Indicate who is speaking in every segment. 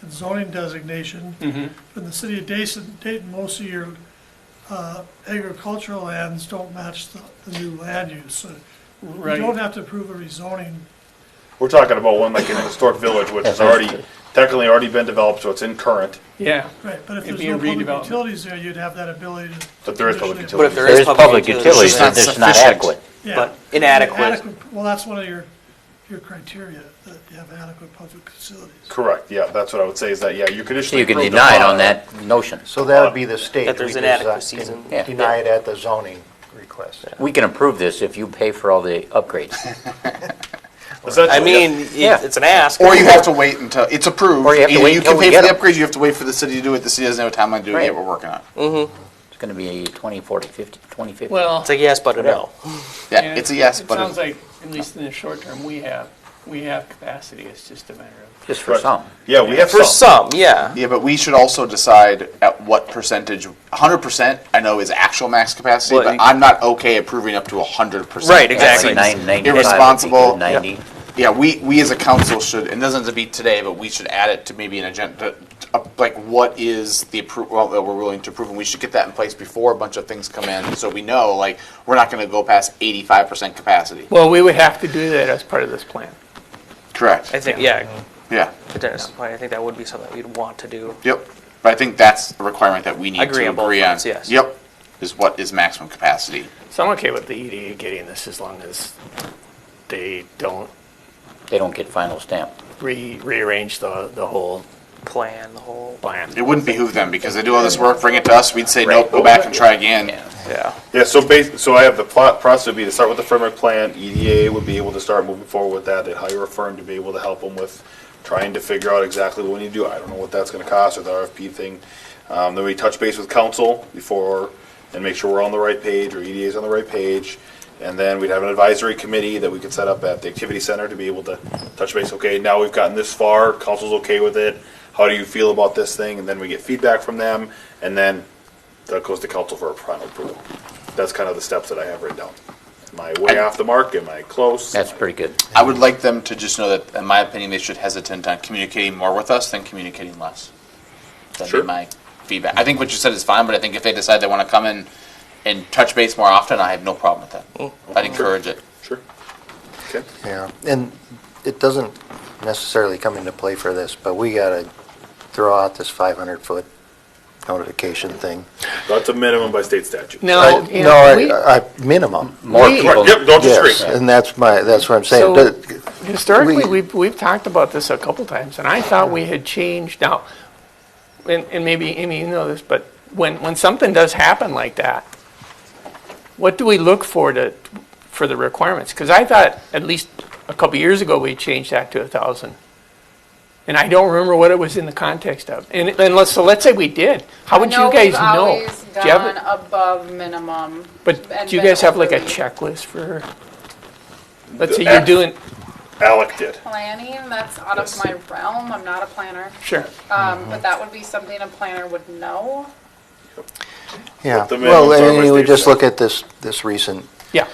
Speaker 1: and zoning designation
Speaker 2: Mm-hmm.
Speaker 1: from the city of Dayton, Dayton, most of your uh, agricultural lands don't match the, the new land use. So You
Speaker 2: Right.
Speaker 1: don't have to approve a rezoning.
Speaker 3: We're talking about one like in a historic village, which has already, technically already been developed, so it's in current,
Speaker 2: Yeah,
Speaker 1: Right, but if
Speaker 2: It'd
Speaker 1: there's
Speaker 2: be
Speaker 1: no
Speaker 2: a
Speaker 1: public
Speaker 2: redevelopment.
Speaker 1: utilities there, you'd have that ability to.
Speaker 3: but there is public
Speaker 1: conditionally-
Speaker 4: But if
Speaker 3: utilities.
Speaker 4: there
Speaker 5: There
Speaker 4: is
Speaker 5: is public utilities,
Speaker 4: it's not
Speaker 5: it's just not
Speaker 4: sufficient,
Speaker 5: adequate.
Speaker 1: Yeah.
Speaker 4: But inadequate,
Speaker 1: Adequate- Well, that's one of your, your criteria, that you have adequate public facilities.
Speaker 3: Correct, yeah, that's what I would say is that, yeah, you
Speaker 5: So
Speaker 3: conditionally.
Speaker 5: you can
Speaker 3: approve the
Speaker 5: deny it
Speaker 3: plat.
Speaker 5: on that notion.
Speaker 6: So that would be the state.
Speaker 4: That there's
Speaker 6: We just, uh,
Speaker 4: inadequacies in-
Speaker 6: can
Speaker 5: Yeah.
Speaker 6: Deny it at the zoning request.
Speaker 5: We can approve this if you pay for all the upgrades.
Speaker 3: Essentially,
Speaker 4: I
Speaker 3: yeah.
Speaker 4: mean, it-
Speaker 5: Yeah.
Speaker 4: it's an ask.
Speaker 7: Or you have to wait until it's approved.
Speaker 5: Or you have to
Speaker 7: Either
Speaker 5: wait
Speaker 7: you
Speaker 5: until
Speaker 7: can
Speaker 5: we
Speaker 7: pay
Speaker 5: get
Speaker 7: for the
Speaker 5: them.
Speaker 7: upgrades. You have to wait for the city to do it. The city doesn't have a timeline to do it
Speaker 5: Right.
Speaker 7: yet. We're working on.
Speaker 2: Mm.
Speaker 7: it.
Speaker 5: It's going to be 20, 40, 50, 2050.
Speaker 2: well.
Speaker 4: It's a yes, but a no.
Speaker 7: Yeah,
Speaker 2: yeah,
Speaker 7: it's a yes,
Speaker 2: it
Speaker 7: but
Speaker 2: sounds
Speaker 7: it's,
Speaker 2: like, at least in the short term, we have, we have capacity. It's just a matter of.
Speaker 5: Just for some.
Speaker 3: Yeah, we have
Speaker 4: For
Speaker 3: some.
Speaker 4: some, yeah.
Speaker 7: yeah, but we should also decide at what percentage. 100 percent, I know, is actual max capacity,
Speaker 4: Well,
Speaker 7: but
Speaker 4: you-
Speaker 7: I'm not okay approving up to 100 percent.
Speaker 4: Right,
Speaker 5: That's
Speaker 4: exactly.
Speaker 5: like 9, 95 would be
Speaker 7: irresponsible.
Speaker 5: good, 90.
Speaker 7: Yeah, we, we as a council should, and it doesn't have to be today, but we should add it to maybe an agenda, uh, like what is the approval that we're willing to approve, and we should get that in place before a bunch of things come in, so we know, like, we're not gonna go past eighty-five percent capacity.
Speaker 2: Well, we would have to do that as part of this plan.
Speaker 7: Correct.
Speaker 4: I think, yeah,
Speaker 7: Yeah,
Speaker 4: potentially, I think that would be something we'd want to do.
Speaker 7: yep, but I think that's a requirement that we need
Speaker 4: Agree
Speaker 7: to
Speaker 4: on both
Speaker 7: agree on.
Speaker 4: fronts, yes.
Speaker 7: Yep, is what is maximum capacity.
Speaker 8: So I'm okay with the EDA getting this as long as they don't
Speaker 5: They don't get final stamp.
Speaker 8: re- rearrange the, the whole
Speaker 4: Plan the whole,
Speaker 8: plan.
Speaker 7: It wouldn't behoove them, because they do all this work, bring it to us, we'd say, nope,
Speaker 5: Right.
Speaker 7: go back and try again.
Speaker 5: Yeah.
Speaker 4: yeah.
Speaker 3: Yeah, so bas so I have the plot process would be to start with the framework plan, EDA would be able to start moving forward with that, they'd hire a firm to be able to help them with trying to figure out exactly what we need to do, I don't know what that's gonna cost, or the RFP thing. Um, then we touch base with council before, and make sure we're on the right page, or E EDA's on the right page. And then we'd have an advisory committee that we could set up at the activity center to be able to touch base, okay, now we've gotten this far, council's okay with it, how do you feel about this thing, and then we get feedback from them, and then that goes to council for a final approval. That's kind of the steps that I have written down. Am I way off the mark? Am I close?
Speaker 5: That's pretty good.
Speaker 7: I would like them to just know that, in my opinion, they should hesitant on communicating more with us than communicating less. That'd
Speaker 3: Sure.
Speaker 7: be my feedback. I think what you said is fine, but I think if they decide they want to come in and touch base more often, I have no problem with that. I'd encourage it.
Speaker 3: Sure. Okay.
Speaker 6: Yeah, and it doesn't necessarily come into play for this, but we gotta throw out this 500-foot notification thing.
Speaker 3: That's a minimum by state statute.
Speaker 2: No,
Speaker 6: I- uh,
Speaker 2: yeah,
Speaker 6: No,
Speaker 2: we-
Speaker 6: I- I- minimum.
Speaker 5: More
Speaker 2: We-
Speaker 5: people.
Speaker 3: Yep, don't disagree.
Speaker 6: Yes, and that's my, that's what I'm saying.
Speaker 2: So-
Speaker 6: Does-
Speaker 2: Historically,
Speaker 6: We-
Speaker 2: we've, we've talked about this a couple times, and I thought we had changed now, and, and maybe, Amy, you know this, but when, when something does happen like that, what do we look for to, for the requirements? Because I thought, at least a couple years ago, we changed that to a thousand. And I don't remember what it was in the context of. And, and let's, so let's say we did, how would you guys know?
Speaker 9: We've always
Speaker 2: Do you have
Speaker 9: gone
Speaker 2: a-
Speaker 9: above minimum.
Speaker 2: But
Speaker 9: and
Speaker 2: do you
Speaker 9: been
Speaker 2: guys have like a
Speaker 9: overly
Speaker 2: checklist for, let's say you're doing,
Speaker 3: Alec did.
Speaker 9: Planning, that's out of
Speaker 3: Yes.
Speaker 9: my realm, I'm not a planner,
Speaker 2: sure.
Speaker 9: um, but that would be something a planner would know.
Speaker 6: Yeah,
Speaker 3: the minimum
Speaker 6: well, I
Speaker 3: service
Speaker 6: mean, we
Speaker 3: they
Speaker 6: just
Speaker 3: set.
Speaker 6: look at this, this recent
Speaker 2: Yeah,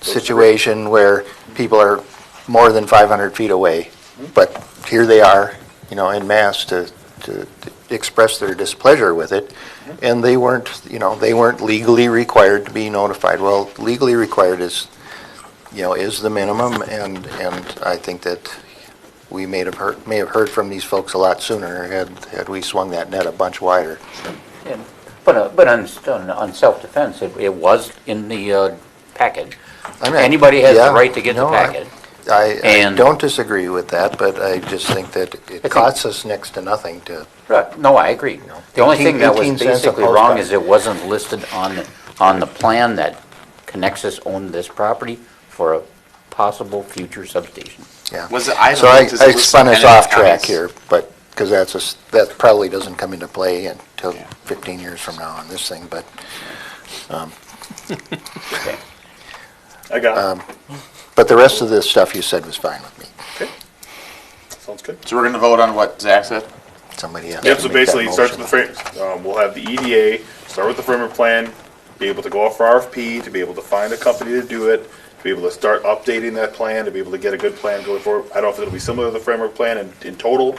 Speaker 6: situation where people are more than 500 feet away, but here they are, you know, en masse to, to to express their displeasure with it, and they weren't, you know, they weren't legally required to be notified. Well, legally required is, you know, is the minimum, and, and I think that we may have heard, may have heard from these folks a lot sooner had, had we swung that net a bunch wider.
Speaker 5: Yeah, But, uh, but on, on- on self-defense, it, it was in the uh, packet.
Speaker 6: I mean,
Speaker 5: Anybody has the
Speaker 6: yeah,
Speaker 5: right to get the
Speaker 6: no, I-
Speaker 5: packet.
Speaker 6: I, I
Speaker 5: And-
Speaker 6: don't disagree with that, but I just think that it costs us next to nothing to
Speaker 5: Right, no, I agree.
Speaker 6: No.
Speaker 5: The only thing that
Speaker 6: 18
Speaker 5: was
Speaker 6: cents a
Speaker 5: basically
Speaker 6: post
Speaker 5: wrong
Speaker 6: back.
Speaker 5: is it wasn't listed on, the- on the plan that Connexus owned this property for a possible future substation.
Speaker 6: Yeah.
Speaker 7: Was it- I
Speaker 6: So
Speaker 7: don't
Speaker 6: I,
Speaker 7: think this
Speaker 6: I
Speaker 7: was
Speaker 6: spun us
Speaker 7: dependent on
Speaker 6: off track
Speaker 7: counties.
Speaker 6: here, but, because that's a, s- that probably doesn't come into play until
Speaker 7: Yeah.
Speaker 6: 15 years from now on this thing, but,
Speaker 5: Okay.
Speaker 3: I got it.
Speaker 6: but the rest of the stuff you said was fine with me.
Speaker 3: Sounds good.
Speaker 7: So we're going to vote on what Zach said?
Speaker 6: Somebody else.
Speaker 3: Yep, so basically, it starts with the frame, um, we'll have the EDA, start with the framework plan, be able to go off for RFP, to be able to find a company to do it, to be able to start updating that plan, to be able to get a good plan going forward. I don't know if it'll be similar to the framework plan in, in total,